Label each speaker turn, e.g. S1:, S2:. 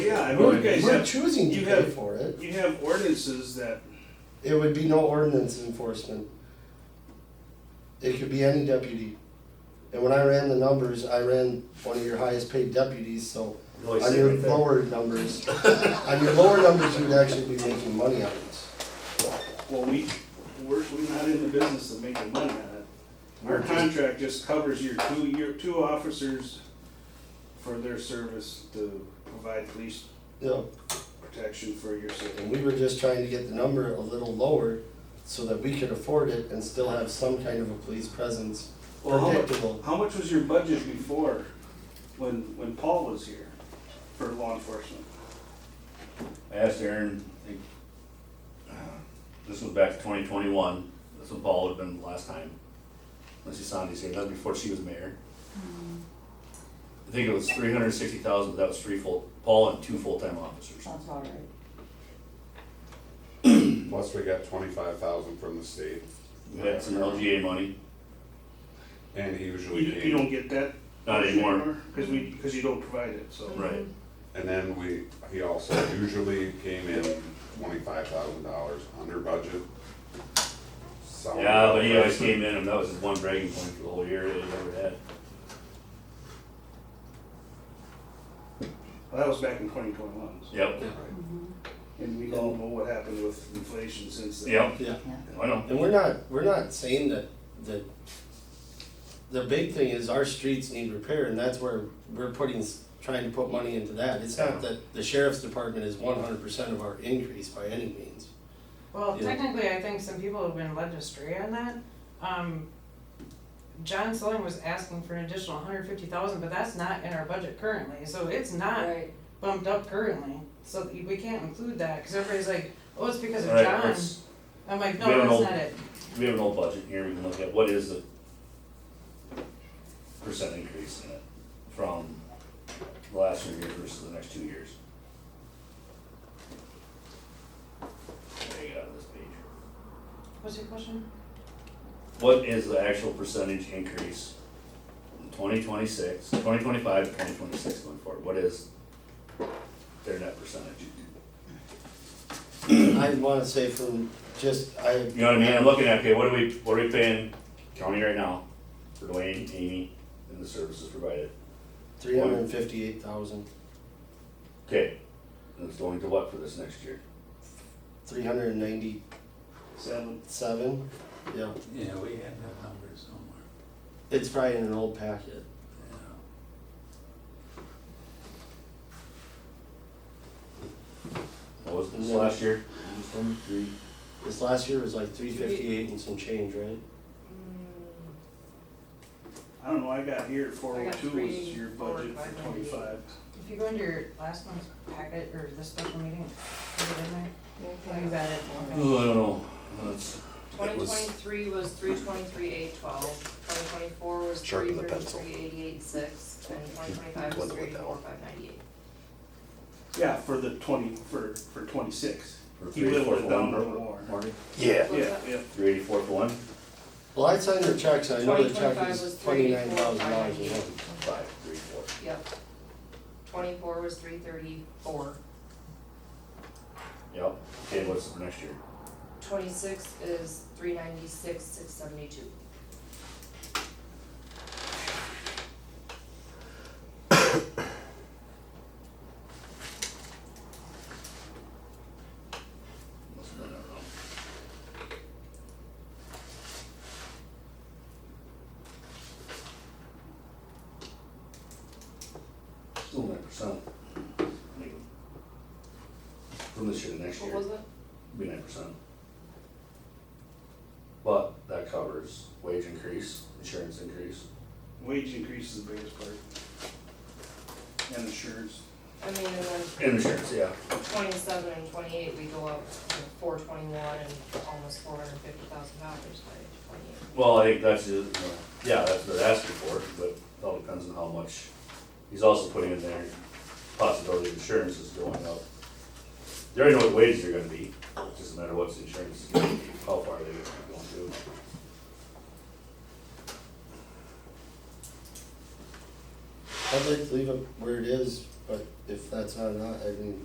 S1: I know you guys
S2: We're
S1: have,
S2: choosing to
S1: you
S2: pay
S1: have-
S2: for it.
S1: you have ordinances that,
S2: It would be no ordinance enforcement. It could be any deputy. And when I ran the numbers, I ran one of your highest paid deputies, so
S3: No, I
S2: on
S3: see
S2: your
S3: right there.
S2: lower numbers, on your lower numbers, you'd actually be making money on this.
S1: well, we, we're, we're not in the business of making money on it. Our contract just covers your two, your two officers for their service to provide police
S2: Yeah,
S1: protection for your city.
S2: and we were just trying to get the number a little lower so that we could afford it and still have some kind of a police presence
S1: Well, how much,
S2: predictable.
S1: how much was your budget before, when, when Paul was here for law enforcement?
S3: I asked Aaron, I think, uh, this was back to twenty twenty-one, that's when Paul would have been the last time. Unless you saw these here, that was before she was mayor. I think it was three hundred and sixty thousand, but that was three full, Paul and two full-time officers.
S4: Sounds all right.
S5: Plus, we got twenty-five thousand from the state,
S3: We had some LGA money,
S5: and he
S1: You,
S5: usually
S1: you don't
S5: came,
S1: get that?
S3: not anymore,
S1: Cause we, cause you don't provide it, so.
S3: right,
S5: and then we, he also usually came in twenty-five thousand dollars under budget. Solid
S3: yeah, but he always
S5: person.
S3: came in, and that was his one bragging point for the whole year that he ever had.
S1: Well, That was back in twenty twenty-one,
S3: Yep,
S1: and we all know what happened with inflation since then.
S3: yep,
S2: Yeah.
S3: I know,
S2: And we're not, we're not saying that, that, the big thing is our streets need repair, and that's where we're putting, s- trying to put money into that. It's not that the sheriff's department is one hundred percent of our increase by any means.
S6: Well,
S2: Yeah.
S6: technically, I think some people have been led astray on that. Um, John Sullivan was asking for an additional hundred fifty thousand, but that's not in our budget currently, so it's not
S4: Right.
S6: bumped up currently. So we can't include that, cause everybody's like, oh, it's because of
S3: All right,
S6: John.
S3: let's-
S6: I'm like,
S3: we
S6: no,
S3: don't
S6: that's
S3: know.
S6: not it.
S3: We have an old budget here, we can look at what is the percent increase in it from the last year versus the next two years. There you go, this page.
S6: What's your question?
S3: What is the actual percentage increase in 2026, 2025, 2026 going forward? What is their net percentage?
S2: I wanna say from just, I.
S3: You know what I mean? I'm looking at, okay, what are we, what are we paying county right now for Dwayne, Amy, and the services provided?
S2: Three hundred and fifty-eight thousand,
S3: Okay, and it's going to what for this next year?
S2: three hundred and ninety-seven,
S1: Seven,
S2: yeah.
S7: Yeah, we had that number somewhere.
S2: It's probably in an old packet.
S7: Yeah.
S3: What was this last year? One, three,
S2: This last year was like three fifty-eight and some change, right?
S6: Mm,
S1: I don't know, I got here at four
S6: I
S1: oh
S6: got
S1: two
S6: three,
S1: was your
S6: four,
S1: budget
S6: five,
S1: for
S6: nine,
S1: twenty-five.
S6: If you go into your last month's packet or this special meeting, is it in there? Oh, you got it, okay.
S3: Oh, I don't know, that's,
S4: Twenty twenty-three was three twenty-three, eight twelve, twenty twenty-four was three
S8: Sharpen the pencil.
S4: thirty-three, eighty-eight, six, and twenty twenty-five was
S8: Dwindle it
S4: three four,
S8: down.
S4: five ninety-eight.
S1: Yeah, for the twenty, for, for twenty-six.
S3: For
S1: He
S3: three,
S1: whittled
S3: four,
S1: it down a
S3: four.
S1: little more.
S3: Marty,
S8: Yeah.
S4: What's
S1: Yeah,
S4: that?
S1: yeah,
S3: three eighty-four for one,
S2: Well, I signed the checks, I know the check
S4: 2025
S2: is
S4: was
S2: twenty-nine thousand dollars.
S4: 34,598.
S3: five, three, four.
S4: Yep. Twenty-four was three thirty-four,
S3: Yep, okay, what's for next year?
S4: twenty-six is three ninety-six, six seventy-two.
S3: Must have been, I don't know. Still nine percent. From this year to next year.
S4: What was it?
S3: be nine percent. But that covers wage increase, insurance increase.
S1: wage increase is the biggest part. And insurance.
S4: I mean, and then
S3: And insurance, yeah.
S4: twenty-seven and twenty-eight, we go up to four twenty-one and almost four hundred fifty thousand dollars by twenty-eight.
S3: Well, I think that's, just, you know, yeah, that's what they're asking for, but it all depends on how much. He's also putting in there possibility of insurance is going up. They already know what wages are gonna be, it doesn't matter what's insurance is gonna be, how far they're going to.
S2: I'd like to leave it where it is, but if that's not, enough, I mean,